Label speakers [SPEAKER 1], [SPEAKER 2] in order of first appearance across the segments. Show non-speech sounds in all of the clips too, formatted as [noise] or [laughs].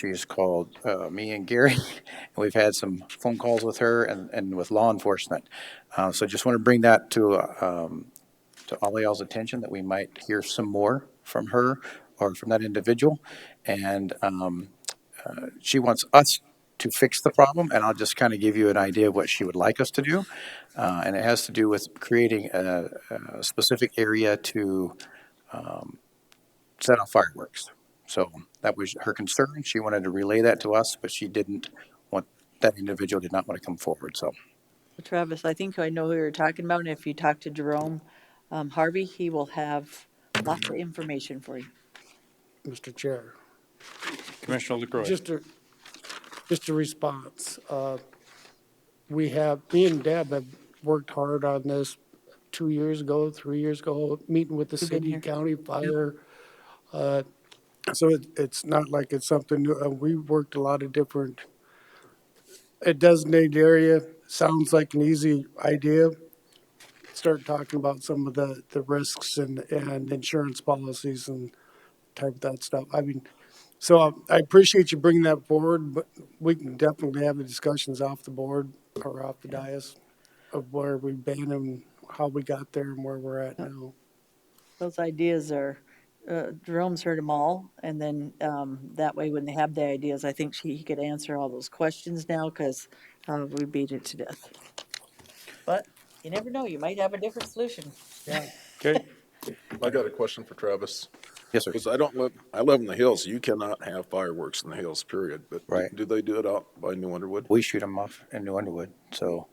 [SPEAKER 1] She's called uh, me and Gary, [laughs] and we've had some phone calls with her and, and with law enforcement. Uh, So just want to bring that to, uh, um, to all y'all's attention, that we might hear some more from her or from that individual. And um, uh, she wants us to fix the problem, and I'll just kind of give you an idea of what she would like us to do. Uh, And it has to do with creating a a specific area to set off fireworks. So that was her concern. She wanted to relay that to us, but she didn't want, that individual did not want to come forward, so.
[SPEAKER 2] Travis, I think I know who you're talking about, and if you talk to Jerome um, Harvey, he will have lots of information for you.
[SPEAKER 3] Mr. Chair.
[SPEAKER 4] Commissioner LaCroy.
[SPEAKER 3] Just a, just a response. Uh, We have, me and Deb have worked hard on this two years ago, three years ago, meeting with the
[SPEAKER 2] We've been
[SPEAKER 3] city,
[SPEAKER 2] here.
[SPEAKER 3] county, fire. Uh, So it, it's not like it's something, new. Uh, we worked a lot of different, a designated area, sounds like an easy idea. Start talking about some of the, the risks and, and insurance policies and type of that stuff. I mean, so um, I appreciate you bringing that forward, but we can definitely have the discussions off the board or off the dais of where we've been and how we got there and where we're at now.
[SPEAKER 2] Those ideas are, uh, Jerome's heard them all, and then um, that way, when they have the ideas, I think she, he could answer all those questions now, because we beat it to death. But you never know, you might have a different solution.
[SPEAKER 4] Okay,
[SPEAKER 5] I got a question for Travis.
[SPEAKER 1] Yes, sir.
[SPEAKER 5] Because I don't live, I live in the hills. You cannot have fireworks in the hills, period. But
[SPEAKER 1] Right.
[SPEAKER 5] do they do it out by New Underwood?
[SPEAKER 1] We shoot them off in New Underwood, so,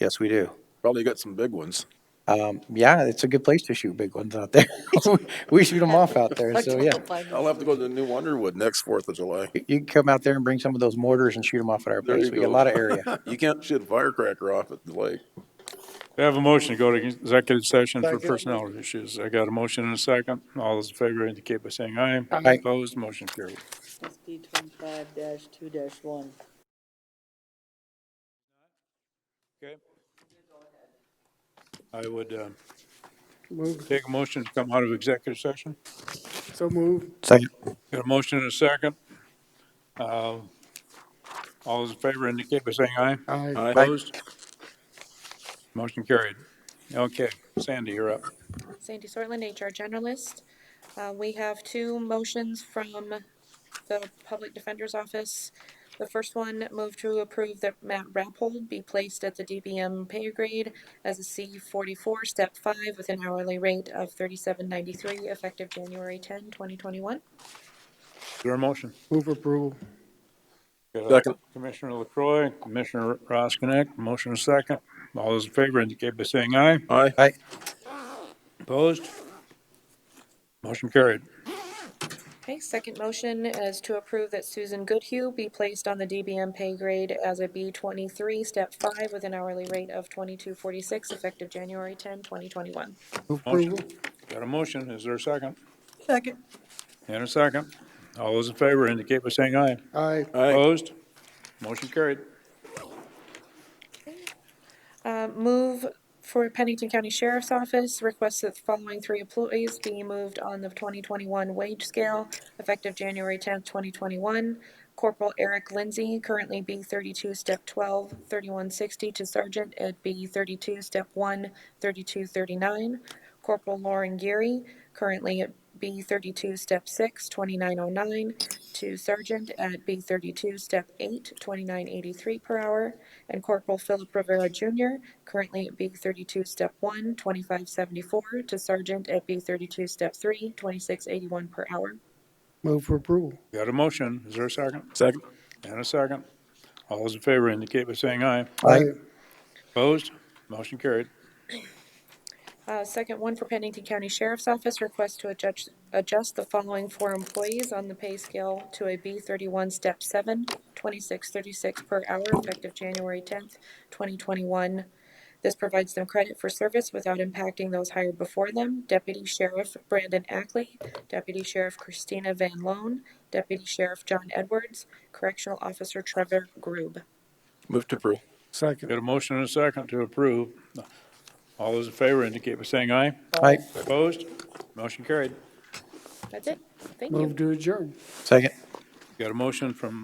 [SPEAKER 1] yes, we do.
[SPEAKER 5] Probably got some big ones.
[SPEAKER 1] Um, yeah, it's a good place to shoot big ones out there. [laughs] We shoot them off out there, so, yeah.
[SPEAKER 5] I'll have to go to New Underwood next Fourth of July.
[SPEAKER 1] You you can come out there and bring some of those mortars and shoot them off at our
[SPEAKER 5] There
[SPEAKER 1] place.
[SPEAKER 5] you
[SPEAKER 1] We got a
[SPEAKER 5] go.
[SPEAKER 1] lot of area.
[SPEAKER 5] [laughs] You can't shoot a firecracker off at the lake.
[SPEAKER 4] we have a motion to go to executive session for
[SPEAKER 3] Second.
[SPEAKER 4] personnel issues. I got a motion and a second. All those in favor indicate by saying aye.
[SPEAKER 1] Aye.
[SPEAKER 4] Opposed, motion carried.
[SPEAKER 2] SD twenty-five dash two dash one.
[SPEAKER 4] Okay. I would uh,
[SPEAKER 3] Move,
[SPEAKER 4] take a motion to come out of executive session.
[SPEAKER 3] so move.
[SPEAKER 1] Second.
[SPEAKER 4] Got a motion and a second. Uh, All those in favor indicate by saying aye.
[SPEAKER 3] Aye.
[SPEAKER 5] I
[SPEAKER 4] Opposed? Motion carried. Okay, Sandy, you're up.
[SPEAKER 6] Sandy Sortland, HR Generalist. Uh, we have two motions from the Public Defender's Office. The first one, move to approve that Matt Rappold be placed at the DBM pay grade as a C forty-four, step five, with an hourly rate of thirty-seven ninety-three, effective January 10, 2021.
[SPEAKER 4] Your motion.
[SPEAKER 3] Move approval.
[SPEAKER 4] Got a
[SPEAKER 5] Second.
[SPEAKER 4] Commissioner LaCroy, Commissioner Roskinek, motion and second. All those in favor indicate by saying aye.
[SPEAKER 5] Aye.
[SPEAKER 1] Aye.
[SPEAKER 4] Opposed? Motion carried.
[SPEAKER 6] Okay, second motion is to approve that Susan Goodhue be placed on the DBM pay grade as a B twenty-three, step five, with an hourly rate of twenty-two forty-six, effective January 10, 2021.
[SPEAKER 3] Move
[SPEAKER 4] Motion.
[SPEAKER 3] approval.
[SPEAKER 4] Got a motion. Is there a second?
[SPEAKER 2] Second.
[SPEAKER 4] And a second. All those in favor indicate by saying aye.
[SPEAKER 3] Aye.
[SPEAKER 5] Aye.
[SPEAKER 4] Opposed? Motion carried.
[SPEAKER 6] Uh, move for Pennington County Sheriff's Office, request that the following three employees be moved on the twenty twenty-one wage scale effective January tenth, twenty twenty-one. Corporal Eric Lindsay, currently B thirty-two, step 12, 3160 to Sergeant at B thirty-two, step 1, 3239. Corporal Lauren Geary, currently at B thirty-two, step 6, 2909 to Sergeant at B thirty-two, step 8, 2983 per hour. And Corporal Philip Rivera Junior, currently at B thirty-two, step 1, 2574 to Sergeant at B thirty-two, step 3, 2681 per hour.
[SPEAKER 3] Move for approval.
[SPEAKER 4] Got a motion. Is there a second?
[SPEAKER 5] Second.
[SPEAKER 4] And a second. All those in favor indicate by saying aye.
[SPEAKER 1] Aye.
[SPEAKER 4] Opposed? Motion carried.
[SPEAKER 6] Uh, second one for Pennington County Sheriff's Office, request to adjust, adjust the following four employees on the pay scale to a B thirty-one, step 7, 2636 per hour effective January tenth, twenty twenty-one. This provides them credit for service without impacting those hired before them. Deputy Sheriff Brandon Ackley, Deputy Sheriff Christina Van Loan, Deputy Sheriff John Edwards, Correctional Officer Trevor Grube.
[SPEAKER 5] Move to approve.
[SPEAKER 3] Second.
[SPEAKER 4] Got a motion and a second to approve. All those in favor indicate by saying aye.
[SPEAKER 1] Aye.
[SPEAKER 4] Opposed? Motion carried.
[SPEAKER 6] That's it. Thank you.
[SPEAKER 3] Move to adjourn.
[SPEAKER 1] Second.
[SPEAKER 4] Got a motion from